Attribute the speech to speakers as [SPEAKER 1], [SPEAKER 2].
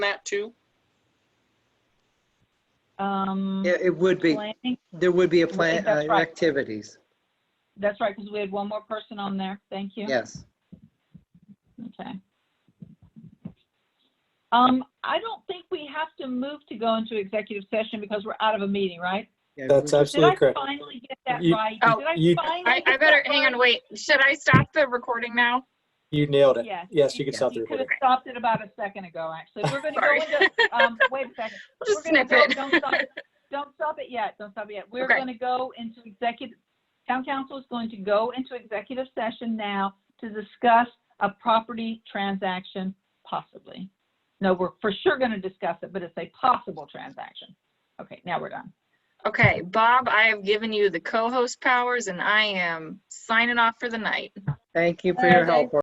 [SPEAKER 1] that too?
[SPEAKER 2] Um,
[SPEAKER 3] Yeah, it would be,
[SPEAKER 2] planning-
[SPEAKER 3] there would be a
[SPEAKER 2] Right,
[SPEAKER 3] plan,
[SPEAKER 2] that's
[SPEAKER 3] uh,
[SPEAKER 2] right.
[SPEAKER 3] activities,
[SPEAKER 2] That's right, because we had one more person on there. Thank you.
[SPEAKER 3] yes.
[SPEAKER 2] Okay. Um, I don't think we have to move to go into executive session because we're out of a meeting, right?
[SPEAKER 3] Yeah,
[SPEAKER 4] That's
[SPEAKER 3] we-
[SPEAKER 2] Did I
[SPEAKER 4] absolutely correct.
[SPEAKER 2] finally get that
[SPEAKER 4] You-
[SPEAKER 2] right?
[SPEAKER 1] Oh,
[SPEAKER 2] Did I
[SPEAKER 4] you-
[SPEAKER 2] finally
[SPEAKER 1] I, I
[SPEAKER 2] get
[SPEAKER 1] better,
[SPEAKER 2] that
[SPEAKER 1] hang on,
[SPEAKER 2] right?
[SPEAKER 1] wait, should I stop the recording now?
[SPEAKER 4] You nailed it.
[SPEAKER 2] Yes.
[SPEAKER 4] Yes, you can stop the
[SPEAKER 2] You could have
[SPEAKER 4] recording.
[SPEAKER 2] stopped it about a second ago, actually. We're going to go
[SPEAKER 1] Sorry.
[SPEAKER 2] into, um, wait a second.
[SPEAKER 1] Just
[SPEAKER 2] We're gonna go-
[SPEAKER 1] snippet.
[SPEAKER 2] Don't stop it. Don't stop it yet. Don't stop it yet. We're
[SPEAKER 1] Okay.
[SPEAKER 2] going to go into executive, town council is going to go into executive session now to discuss a property transaction possibly. No, we're for sure going to discuss it, but it's a possible transaction. Okay, now we're done.
[SPEAKER 1] Okay, Bob, I have given you the co-host powers and I am signing off for the night.
[SPEAKER 3] Thank you for your
[SPEAKER 2] Okay.
[SPEAKER 3] help.